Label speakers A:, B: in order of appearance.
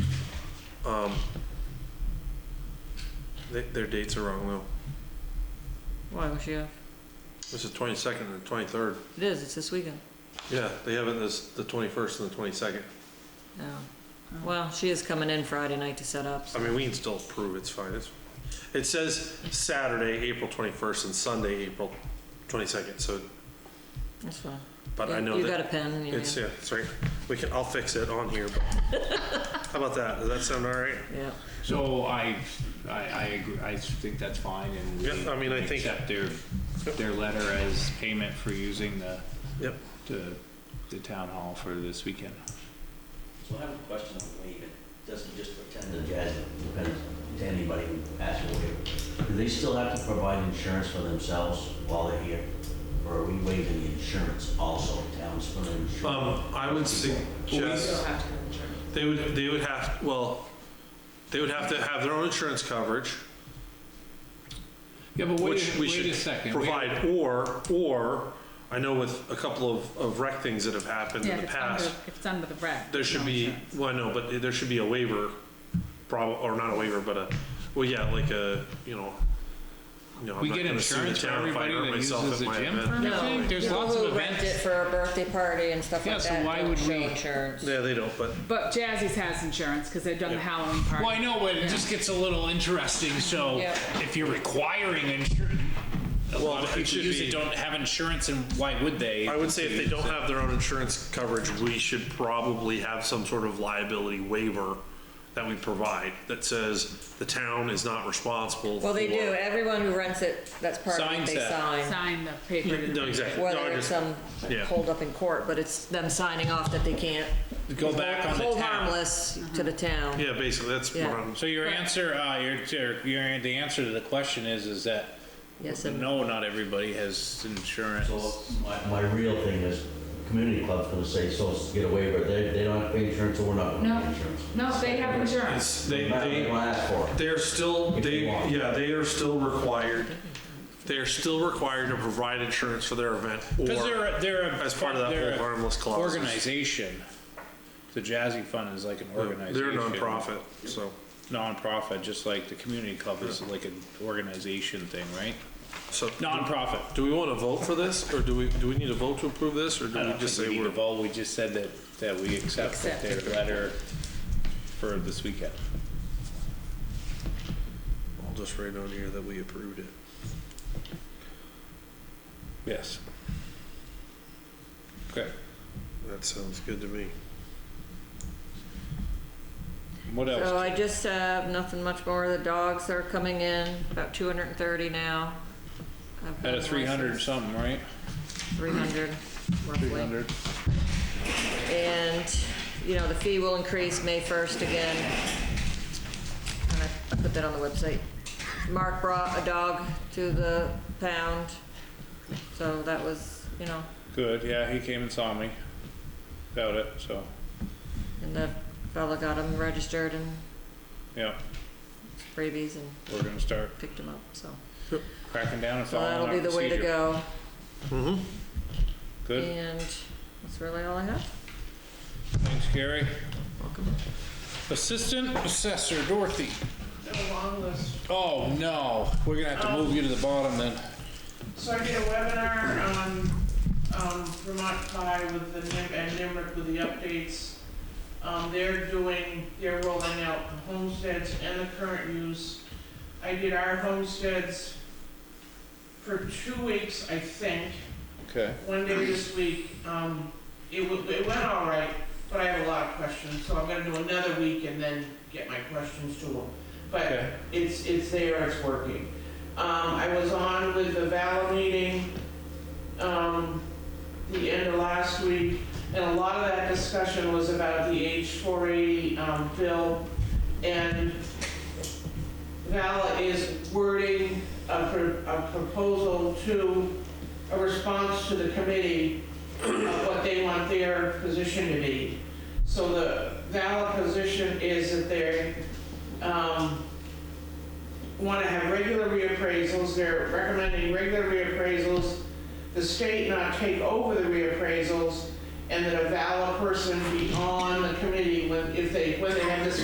A: Um, they, their dates are wrong, Lou.
B: Why, was she off?
A: This is twenty-second and twenty-third.
B: It is, it's this weekend.
A: Yeah, they have it as the twenty-first and the twenty-second.
B: Oh. Well, she is coming in Friday night to set up. so-
A: I mean, we can still approve, it's fine, it's, it says Saturday, April twenty-first and Sunday, April twenty-second, so,
B: That's fine.
A: but I
B: You-
A: know
B: You got a
A: that.
B: pen in your
A: It's,
B: hand?
A: yeah, it's right, we can, I'll fix it on here, but, how about that, does that sound all right?
B: Yeah.
C: So I, I, I agree, I think that's fine and we.
A: Yeah, I mean, I think-
C: Accept their, their letter as payment for using the,
A: Yep,
C: the, the town hall for this weekend.
D: So I have a question on waiving. Doesn't just pretend to Jasmine, depends to anybody who asks for waiver. Do they still have to provide insurance for themselves while they're here? Or are we waiving the insurance also, town's for the insurance?
A: um, I would suggest,
E: have to have insurance.
A: they would, they would have, well, they would have to have their own insurance coverage,
C: Yeah, but
A: which
C: wait, a-
A: we
C: wait a
A: should
C: second. wait a-
A: provide, or, or, I know with a couple of, of wreck things that have happened
E: Yeah,
A: in the
E: if it's under,
A: past,
E: if it's under the rec.
A: there
E: there's
A: should
E: no
A: be,
E: insurance.
A: well, I know, but there should be a waiver, prob, or not a waiver, but a, well, yeah, like a, you know, you know, I'm
C: We
A: not
C: get
A: gonna sue the
C: insurance for
A: town if I
C: everybody
A: hurt
C: that
A: myself
C: uses
A: at
C: the
A: my
C: gym
A: event.
C: for everything? There's
B: People
C: lots of
B: who rent it
C: events.
B: for a birthday party and stuff
C: Yeah,
B: like
C: so
B: that,
C: why
B: don't
C: would
B: show
C: we-
B: insurance.
A: Yeah, they don't, but
E: But Jazzy's has insurance because they've done the Halloween party.
C: Well, I know, but it just gets a little interesting, so
B: Yeah.
C: if you're requiring insurance, a lot
A: Well,
C: of
A: it
C: people
A: should
C: use
A: be-
C: it, don't have insurance, and why would they?
A: I would say if they don't have their own insurance coverage, we should probably have some sort of liability waiver that we provide that says the town is not responsible
B: Well, they
A: for-
B: do, everyone who rents it, that's part of it,
C: Signs
B: they
C: that.
B: sign.
E: Sign the paper. to
A: No, exactly. No,
B: Whether
A: I
B: it's
A: just-
B: some
A: yeah.
B: hold up in court, but it's them signing off that they can't.
C: Go back on the
B: Hold
C: town.
B: harmless to the town.
A: Yeah, basically, that's what
B: Yeah.
A: I'm,
C: So your answer, uh, your, your, your, the answer to the question is, is that
B: Yes, and-
C: no, not everybody has insurance.
D: So my, my real thing is, community club's gonna say, so get a waiver, they, they don't have to pay insurance, so we're not gonna pay
E: No,
D: insurance.
E: no, they have insurance.
A: it's, they,
D: Not
A: they.
D: what they wanna ask for.
A: They're still,
D: If
A: they,
D: you want.
A: yeah, they are still required, they are still required to provide insurance for their event
C: Because
A: or
C: they're, a- they're. a-
A: as part of that
C: they're
A: whole
C: a
A: harmless clause.
C: Organization. The Jazzy Fund is like an organization.
A: they're nonprofit, so.
C: Nonprofit, just like the community club is like an organization thing, right?
A: So,
C: Nonprofit.
A: do we want to vote for this or do we, do we need a vote to approve this or
C: I
A: do we
C: don't
A: just
C: think we
A: say
C: need to
A: we're?
C: vote, we just said that, that we accept
E: Accept.
C: their letter for this weekend.
A: I'll just write on here that we approved it.
C: Yes. Okay,
A: That sounds good to me.
C: what
B: So
C: else?
B: I just have nothing much more. The dogs are coming in, about two hundred and thirty now. I've
C: At a
B: done
C: three hundred
B: license-
C: something, right?
B: 300 roughly.
C: 300.
B: And, you know, the fee will increase May 1st again. And I- I put that on the website. Mark brought a dog to the pound, so that was, you know,
C: Good, yeah, he came and saw me about it, so,
B: and the fella got him registered and
C: yeah,
B: rabies and
C: we're gonna start
B: picked him up, so.
C: cracking down and
B: So
C: following our
B: that'll be the
C: procedure.
B: way to go.
C: Good,
B: And that's really all I have.
C: thanks, Gary. Assistant Assessor Dorothy. Oh, no, we're gonna have to move you to the bottom then.
F: So I did a webinar on um, Vermont Pie with the NIM and NIMRIC with the updates. Um, They're doing, they're rolling out the homesteads and the current use. I did our homesteads for two weeks, I think,
C: Okay,
F: one day this week. Um, It wa- it went all right, but I have a lot of questions, so I'm gonna do another week and then get my questions to them. But
C: okay,
F: it's, it's there, it's working. Um, I was on with the VALA meeting, um, the end of last week, and a lot of that discussion was about the H four eighty, um, bill. And VALA is wording a, pro- a proposal to, a response to the committee of what they want their position to be. So the VALA position is that they're, um, want to have regular reappraisals, they're recommending regular reappraisals, the state not take over the reappraisals, and that a valid person be on the committee when, if they, when they have this